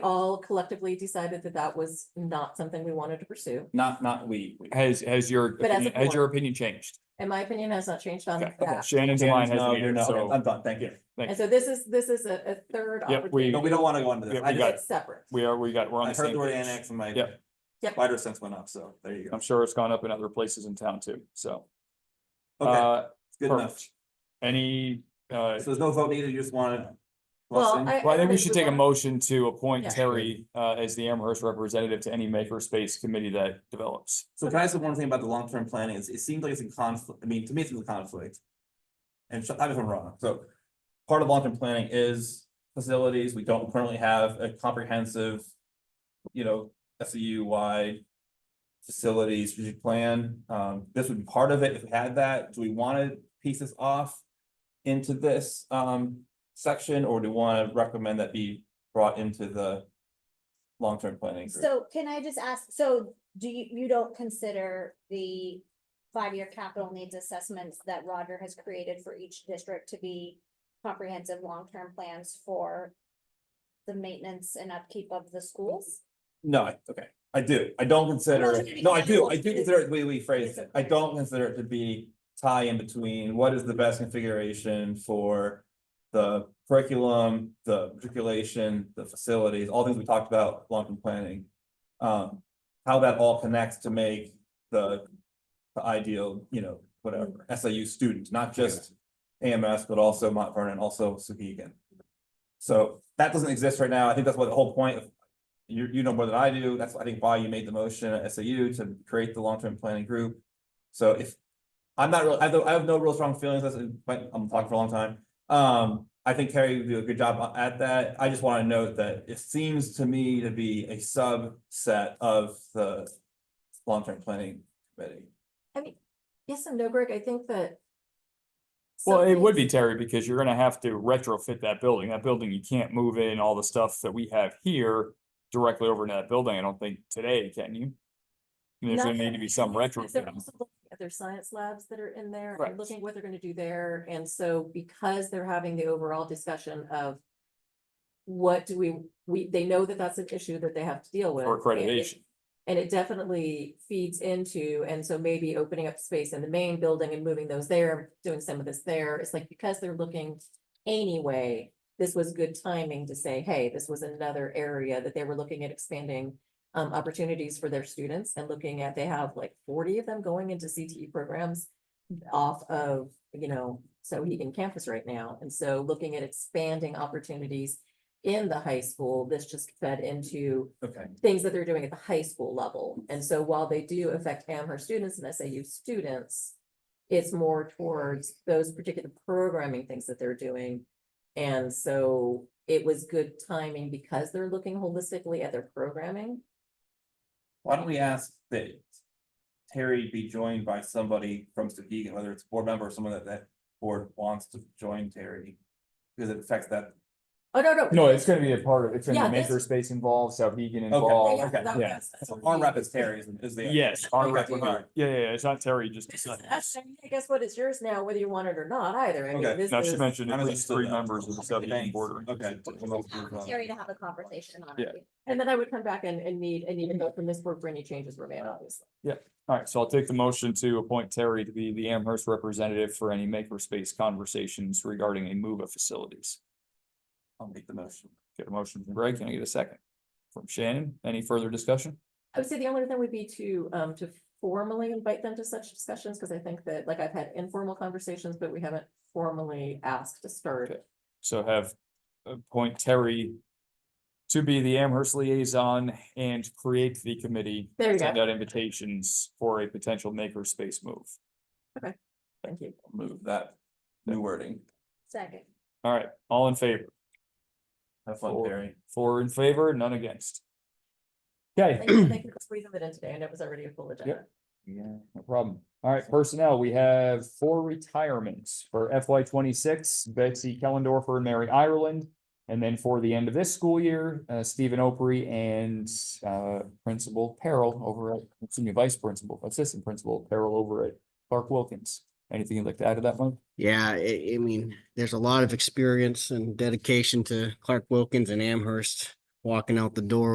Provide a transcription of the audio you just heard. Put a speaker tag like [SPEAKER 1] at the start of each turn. [SPEAKER 1] all collectively decided that that was not something we wanted to pursue.
[SPEAKER 2] Not, not we. we-
[SPEAKER 3] Has, has your,
[SPEAKER 1] But as a Oh,
[SPEAKER 3] opinion- has your opinion changed?
[SPEAKER 1] And my opinion has not changed on
[SPEAKER 3] Okay.
[SPEAKER 1] that.
[SPEAKER 3] Shannon's and mine
[SPEAKER 2] Jan's,
[SPEAKER 3] has
[SPEAKER 2] no, you're
[SPEAKER 3] neither,
[SPEAKER 2] not- okay, I'm
[SPEAKER 3] so
[SPEAKER 2] done, thank you.
[SPEAKER 1] And so this is, this is a, a third.
[SPEAKER 3] Yep, we-
[SPEAKER 2] No,
[SPEAKER 1] opportunity.
[SPEAKER 2] we don't want to go into this.
[SPEAKER 3] Yeah,
[SPEAKER 2] I
[SPEAKER 3] we
[SPEAKER 2] just-
[SPEAKER 3] got
[SPEAKER 1] It's separate.
[SPEAKER 3] we are, we got, we're on
[SPEAKER 2] I
[SPEAKER 3] the
[SPEAKER 2] heard
[SPEAKER 3] same
[SPEAKER 2] the word
[SPEAKER 3] page.
[SPEAKER 2] annex and my
[SPEAKER 3] Yep.
[SPEAKER 1] Yep.
[SPEAKER 2] wider sense went up, so there you go.
[SPEAKER 3] I'm sure it's gone up in other places in town too, so.
[SPEAKER 2] Okay,
[SPEAKER 3] Uh,
[SPEAKER 2] it's good enough.
[SPEAKER 3] perfect. Any, uh,
[SPEAKER 2] So there's no vote needed, you just wanted.
[SPEAKER 1] Well, I.
[SPEAKER 3] well, I think we
[SPEAKER 1] heard
[SPEAKER 3] should take a
[SPEAKER 1] wanna-
[SPEAKER 3] motion to appoint
[SPEAKER 1] Yeah.
[SPEAKER 3] Terry, uh, as the Amherst representative to any makerspace committee that develops.
[SPEAKER 2] So can I say one thing about the long-term planning? It's- It seems like it's in conflict, I mean, to me, it's in conflict. And so, I'm if I'm wrong, so part of long-term planning is facilities. We don't currently have a comprehensive, you know, SEU wide facilities strategic plan. Um, this would be part of it if we had that. Do we want to piece this off into this um section, or do we want to recommend that be brought into the long-term planning? group?
[SPEAKER 4] So can I just ask, so do you, you don't consider the five-year capital needs assessments that Roger has created for each district to be comprehensive long-term plans for the maintenance and upkeep of the schools?
[SPEAKER 2] No, I- okay, I do, I don't consider,
[SPEAKER 4] Well,
[SPEAKER 2] it- no, I do, I
[SPEAKER 4] it's-
[SPEAKER 2] do consider it, we, we phrased it, I don't consider it to be. Tie in between what is the best configuration for the curriculum, the matriculation, the facilities, all things we talked about, long-term planning. Um, how that all connects to make the, the ideal, you know, whatever, SAU student, not just. AMS, but also Mount Vernon, also Sohegan. So that doesn't exist right now, I think that's what the whole point of you, you know more than I do. That's, I think, why you made the motion at SAU to create the long-term planning group. So if, I'm not real, I have, I have no real strong feelings, that's, but I'm talking for a long time. Um, I think Carrie would do a good job at that. I just want to note that it seems to me to be a subset of the long-term planning committee.
[SPEAKER 1] Yes and no, Greg, I think that.
[SPEAKER 3] Well,
[SPEAKER 1] some
[SPEAKER 3] it would be
[SPEAKER 1] things-
[SPEAKER 3] Terry, because you're gonna have to retrofit that building. That building, you can't move in all the stuff that we have here directly over into that building. I don't think today, can you? There's gonna
[SPEAKER 1] Not-
[SPEAKER 3] need to be some
[SPEAKER 1] They're
[SPEAKER 3] retrofit.
[SPEAKER 1] also looking at their science labs that are in there
[SPEAKER 3] Correct.
[SPEAKER 1] and looking at what they're gonna do there. And so because they're having the overall discussion of. What do we, we, they know that that's an issue that they have to deal with.
[SPEAKER 3] Or
[SPEAKER 1] and it-
[SPEAKER 3] accreditation.
[SPEAKER 1] And it definitely feeds into, and so maybe opening up space in the main building and moving those there, doing some of this there, it's like, because they're looking anyway, this was good timing to say, hey, this was another area that they were looking at expanding um, opportunities for their students and looking at, they have like forty of them going into CTE programs off of, you know, Sohegan campus right now. And so looking at expanding opportunities in the high school, this just fed into
[SPEAKER 2] Okay.
[SPEAKER 1] things that they're doing at the high school level. And so while they do affect Amherst students and SAU students, it's more towards those particular programming things that they're doing. And so it was good timing because they're looking holistically at their programming.
[SPEAKER 2] Why don't we ask that Terry be joined by somebody from Sohegan, whether it's a board member or someone that that board wants to join Terry? Because it affects that.
[SPEAKER 1] Oh, no, no.
[SPEAKER 3] No, it's gonna be a part of, it's
[SPEAKER 1] gonna
[SPEAKER 3] gonna
[SPEAKER 1] be
[SPEAKER 3] be
[SPEAKER 1] Yeah, this-
[SPEAKER 3] makerspace involved, Souhegan
[SPEAKER 2] involved.
[SPEAKER 3] involved.
[SPEAKER 1] Yeah, that
[SPEAKER 3] yeah.
[SPEAKER 1] was- that's
[SPEAKER 2] so
[SPEAKER 1] what
[SPEAKER 2] Arm
[SPEAKER 1] we-
[SPEAKER 2] rep is Terry is- is the.
[SPEAKER 3] Yes.
[SPEAKER 2] Okay,
[SPEAKER 3] on record.
[SPEAKER 2] all right.
[SPEAKER 3] Yeah, yeah, yeah, it's not Terry, just.
[SPEAKER 1] This is us, and Guess what? It's yours now, whether you want it or not either. I mean,
[SPEAKER 2] Okay.
[SPEAKER 1] this
[SPEAKER 3] Now, she
[SPEAKER 1] is-
[SPEAKER 3] mentioned
[SPEAKER 2] I
[SPEAKER 3] at
[SPEAKER 2] was
[SPEAKER 3] least
[SPEAKER 2] still
[SPEAKER 3] three
[SPEAKER 2] there.
[SPEAKER 3] members of the Souhegan
[SPEAKER 2] Thanks.
[SPEAKER 3] board. are
[SPEAKER 2] Okay.
[SPEAKER 3] interested.
[SPEAKER 4] Terry to have a conversation on
[SPEAKER 3] Yeah.
[SPEAKER 4] it.
[SPEAKER 1] And then I would come back and, and need, and need to vote from this board for any changes were made, obviously.
[SPEAKER 3] All right, so I'll take the motion to appoint Terry to be the Amherst representative for any makerspace conversations regarding a move of facilities.
[SPEAKER 2] I'll make the motion.
[SPEAKER 3] Get a motion from Greg. Can I get a second? From Shannon, any further discussion?
[SPEAKER 1] I would say the only thing would be to, um, to formally invite them to such discussions, because I think that, like, I've had informal conversations, but we haven't formally asked to start.
[SPEAKER 3] Okay. So have appoint Terry to be the Amherst liaison and create the committee.
[SPEAKER 1] There you
[SPEAKER 3] Send
[SPEAKER 1] go.
[SPEAKER 3] out invitations for a potential makerspace move.
[SPEAKER 1] Thank you.
[SPEAKER 2] Move that new wording.
[SPEAKER 4] Second.
[SPEAKER 3] All right, all in favor?
[SPEAKER 2] Have fun,
[SPEAKER 3] Four.
[SPEAKER 2] Terry.
[SPEAKER 3] Four in favor, none against. Okay.
[SPEAKER 1] Thank you, thank you for squeezing it in today, and it was already a full agenda.
[SPEAKER 3] Yeah, no problem. All right, personnel, we have four retirements for FY twenty-six, Betsy Kellendorfer and Mary Ireland. And then for the end of this school year, uh, Stephen Opry and, uh, Principal Peril over at, excuse me, Vice Principal, Assistant Principal Peril over at Clark Wilkins. Anything you'd like to add to that one?
[SPEAKER 5] Yeah, I, I mean, there's a lot of experience and dedication to Clark Wilkins and Amherst walking out the door